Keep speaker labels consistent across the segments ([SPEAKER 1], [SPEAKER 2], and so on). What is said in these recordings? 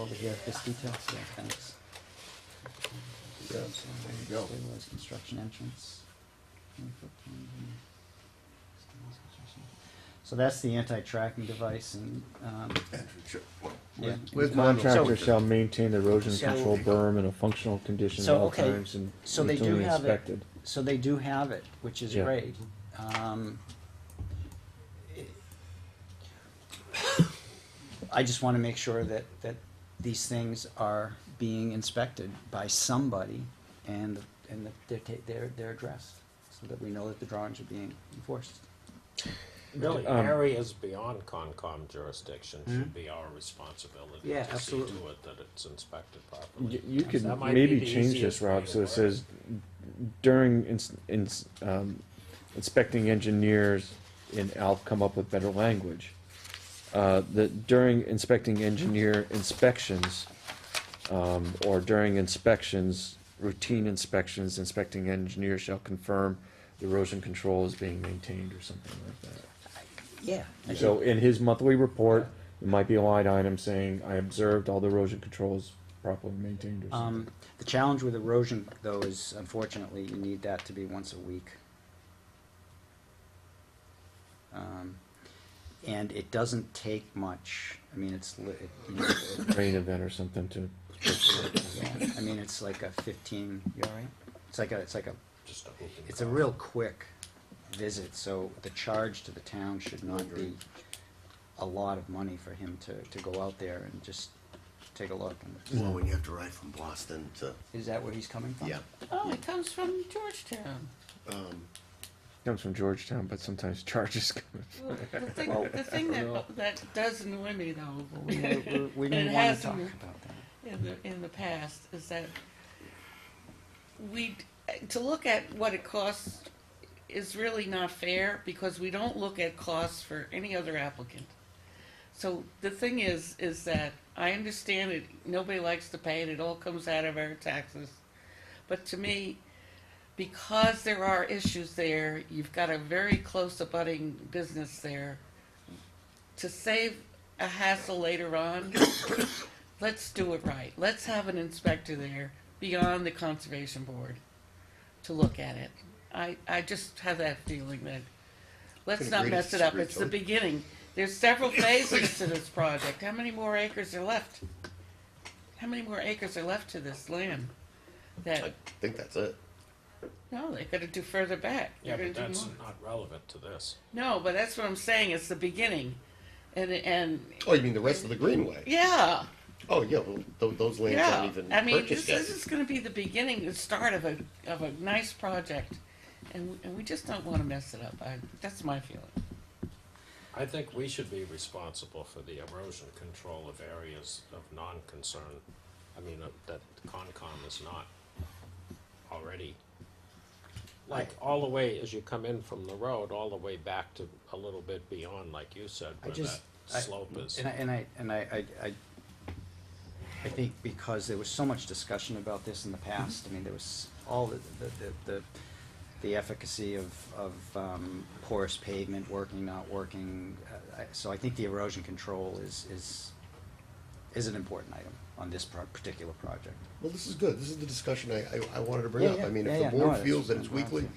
[SPEAKER 1] over here, this detail, so yeah, thanks.
[SPEAKER 2] Yeah, there you go.
[SPEAKER 1] Stabilized construction entrance. So that's the anti-tracking device and, um,
[SPEAKER 2] Entrance, yeah.
[SPEAKER 1] yeah.
[SPEAKER 2] With
[SPEAKER 3] Contractor
[SPEAKER 2] modules.
[SPEAKER 1] So-
[SPEAKER 3] shall maintain erosion
[SPEAKER 1] So-
[SPEAKER 3] control berm in a functional condition at
[SPEAKER 1] So,
[SPEAKER 3] all
[SPEAKER 1] okay,
[SPEAKER 3] times and
[SPEAKER 1] so they do
[SPEAKER 3] routinely
[SPEAKER 1] have it.
[SPEAKER 3] inspected.
[SPEAKER 1] So they do have it, which is
[SPEAKER 3] Yeah.
[SPEAKER 1] great. Um, it- I just wanna make sure that, that these things are being inspected by somebody and, and that they're ta- they're, they're addressed, so that we know that the drawings are being enforced.
[SPEAKER 4] Really,
[SPEAKER 3] Um,
[SPEAKER 4] areas beyond Concom jurisdiction should be our responsibility
[SPEAKER 1] Hmm? Yeah,
[SPEAKER 4] to see
[SPEAKER 1] absolutely.
[SPEAKER 4] to it that it's inspected
[SPEAKER 3] Y-
[SPEAKER 4] properly.
[SPEAKER 3] You could
[SPEAKER 4] That might be
[SPEAKER 3] maybe
[SPEAKER 4] the
[SPEAKER 3] change this,
[SPEAKER 4] easiest
[SPEAKER 3] Rob,
[SPEAKER 4] way to
[SPEAKER 3] so it
[SPEAKER 4] work.
[SPEAKER 3] says during ins- ins- um, inspecting engineers, and I'll come up with better language. Uh, that during inspecting engineer inspections, um, or during inspections, routine inspections, inspecting engineer shall confirm the erosion control is being maintained or something like that.
[SPEAKER 1] Yeah. I
[SPEAKER 3] So
[SPEAKER 1] think-
[SPEAKER 3] in his monthly report, it might be a line item saying, I observed all the erosion controls properly maintained or
[SPEAKER 1] Um,
[SPEAKER 3] something.
[SPEAKER 1] the challenge with erosion though is unfortunately you need that to be once a week. Um, and it doesn't take much, I mean, it's, li- it, you know, it-
[SPEAKER 3] rain event or something to.
[SPEAKER 1] Yeah, I mean, it's like a fifteen, you all right? It's like a, it's like a,
[SPEAKER 4] Just a hoop and
[SPEAKER 1] it's a
[SPEAKER 4] cross.
[SPEAKER 1] real quick visit, so the charge to the town should not be a lot of money for him to, to go out there and just take a look. and-
[SPEAKER 5] Well, when you have to ride from Boston to,
[SPEAKER 1] Is that where he's coming from?
[SPEAKER 5] yeah,
[SPEAKER 6] Oh, it comes from Georgetown.
[SPEAKER 3] Comes from Georgetown, but sometimes charges come.
[SPEAKER 6] Well, The thing, the thing that, that does annoy me though,
[SPEAKER 1] We, we- we
[SPEAKER 6] It
[SPEAKER 1] didn't wanna
[SPEAKER 6] has
[SPEAKER 1] talk
[SPEAKER 6] me.
[SPEAKER 1] about that.
[SPEAKER 6] in the, in the past, is that we, to look at what it costs is really not fair, because we don't look at costs for any other applicant. So the thing is, is that I understand it, nobody likes to pay it, it all comes out of our taxes. But to me, because there are issues there, you've got a very close abutting business there. To save a hassle later on, let's do it right. Let's have an inspector there beyond the conservation board to look at it. I, I just have that feeling that, let's
[SPEAKER 5] Can
[SPEAKER 6] not
[SPEAKER 5] agree to
[SPEAKER 6] mess it up,
[SPEAKER 5] disagree,
[SPEAKER 6] it's the
[SPEAKER 5] Tony.
[SPEAKER 6] beginning. There's several phases to this project, how many more acres are left? How many more acres are left to this land?
[SPEAKER 5] I
[SPEAKER 6] That,
[SPEAKER 5] think that's it.
[SPEAKER 6] no, they're gonna do further back.
[SPEAKER 4] Yeah,
[SPEAKER 6] They're
[SPEAKER 4] but
[SPEAKER 6] gonna do
[SPEAKER 4] that's
[SPEAKER 6] more.
[SPEAKER 4] not relevant to this.
[SPEAKER 6] No, but that's what I'm saying, it's the beginning. And, and,
[SPEAKER 5] Oh, you mean the rest of the Greenway?
[SPEAKER 6] yeah,
[SPEAKER 5] Oh, yeah, well, tho- those lands
[SPEAKER 6] yeah.
[SPEAKER 5] aren't even
[SPEAKER 6] I mean, this,
[SPEAKER 5] purchased yet.
[SPEAKER 6] this is gonna be the beginning, the start of a, of a nice project. And, and we just don't wanna mess it up, I, that's my feeling.
[SPEAKER 4] I think we should be responsible for the erosion control of areas of non-concern, I mean, uh, that Concom is not already. Like, all the way, as you come in from the road, all the way back to a little bit beyond, like you said,
[SPEAKER 1] I
[SPEAKER 4] where that
[SPEAKER 1] just, I-
[SPEAKER 4] slope is.
[SPEAKER 1] And I, and I, and I, I, I- I think because there was so much discussion about this in the past, I mean, there was all the, the- the, the, the efficacy of, of um, porous pavement, working, not working. uh, I- So I think the erosion control is, is, is an important item on this pro- particular project.
[SPEAKER 5] Well, this is good. This is the discussion I, I, I wanted to bring
[SPEAKER 1] Yeah,
[SPEAKER 5] up.
[SPEAKER 1] yeah,
[SPEAKER 5] I mean,
[SPEAKER 1] yeah,
[SPEAKER 5] if
[SPEAKER 1] yeah,
[SPEAKER 5] the
[SPEAKER 1] no,
[SPEAKER 5] board
[SPEAKER 1] that's-
[SPEAKER 5] feels that it's
[SPEAKER 1] that's
[SPEAKER 5] weekly,
[SPEAKER 1] awesome.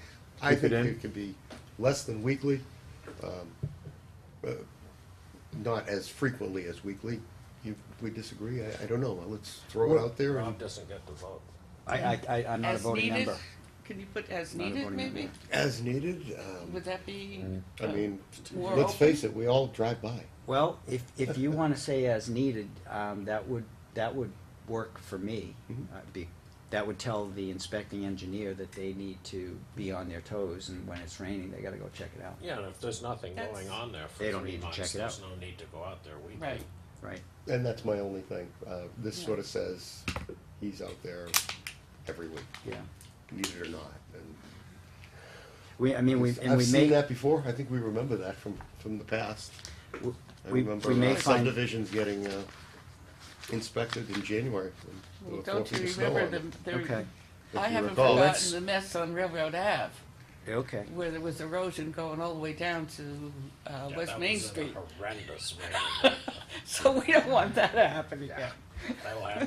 [SPEAKER 5] I
[SPEAKER 3] Keep it
[SPEAKER 5] think
[SPEAKER 3] in.
[SPEAKER 5] it could be less than weekly, um, uh, not as frequently as weekly. You, we disagree, I, I don't know. Let's throw it out there and
[SPEAKER 4] Rob doesn't get the vote.
[SPEAKER 1] I, I, I- I'm not a
[SPEAKER 6] As
[SPEAKER 1] voting
[SPEAKER 6] needed,
[SPEAKER 1] member.
[SPEAKER 6] Can you put as
[SPEAKER 1] Not a
[SPEAKER 6] needed,
[SPEAKER 1] voting
[SPEAKER 6] maybe?
[SPEAKER 1] member.
[SPEAKER 5] as needed, um,
[SPEAKER 6] Would that be? uh,
[SPEAKER 5] I mean,
[SPEAKER 6] More
[SPEAKER 5] let's
[SPEAKER 6] open?
[SPEAKER 5] face it, we all drive by.
[SPEAKER 1] Well, if, if you want to say as needed, um, that would, that would work for me.
[SPEAKER 5] Mm-hmm.
[SPEAKER 1] Uh, be- That would tell the inspecting engineer that they need to be on their toes and when it's raining, they gotta go check it out,
[SPEAKER 4] Yeah, and if there's nothing
[SPEAKER 6] That's-
[SPEAKER 4] going on there for
[SPEAKER 1] They don't
[SPEAKER 4] three
[SPEAKER 1] need to check
[SPEAKER 4] months,
[SPEAKER 1] it
[SPEAKER 4] there's
[SPEAKER 1] out.
[SPEAKER 4] no need to go out there weekly.
[SPEAKER 6] Right.
[SPEAKER 1] right?
[SPEAKER 5] And that's my only thing. Uh, this
[SPEAKER 6] Yeah.
[SPEAKER 5] sort of says he's out there every week,
[SPEAKER 1] Yeah.
[SPEAKER 5] need it or not. And
[SPEAKER 1] We, I mean, we, and
[SPEAKER 5] I've
[SPEAKER 1] we
[SPEAKER 5] seen
[SPEAKER 1] may,
[SPEAKER 5] that before. I think we remember that from from the past.
[SPEAKER 1] w-
[SPEAKER 5] I
[SPEAKER 1] we,
[SPEAKER 5] remember
[SPEAKER 1] we may
[SPEAKER 5] uh,
[SPEAKER 1] find,
[SPEAKER 5] subdivisions getting uh, inspected in January. when there
[SPEAKER 6] Well,
[SPEAKER 5] were
[SPEAKER 6] don't
[SPEAKER 5] four
[SPEAKER 6] you
[SPEAKER 5] feet of snow
[SPEAKER 6] remember
[SPEAKER 5] on
[SPEAKER 6] the,
[SPEAKER 5] them.
[SPEAKER 6] the,
[SPEAKER 1] okay,
[SPEAKER 5] If
[SPEAKER 6] I
[SPEAKER 5] you
[SPEAKER 6] haven't
[SPEAKER 5] recall,
[SPEAKER 6] forgotten
[SPEAKER 1] that's-
[SPEAKER 6] the mess on Railroad Ave,
[SPEAKER 1] okay.
[SPEAKER 6] where there was erosion going all the way down to, uh,
[SPEAKER 4] Yeah,
[SPEAKER 6] West
[SPEAKER 4] that
[SPEAKER 6] Main
[SPEAKER 4] was in a
[SPEAKER 6] Street.
[SPEAKER 4] Horrendous rain.
[SPEAKER 6] So we don't want that uh, to happen again.
[SPEAKER 4] That'll happen.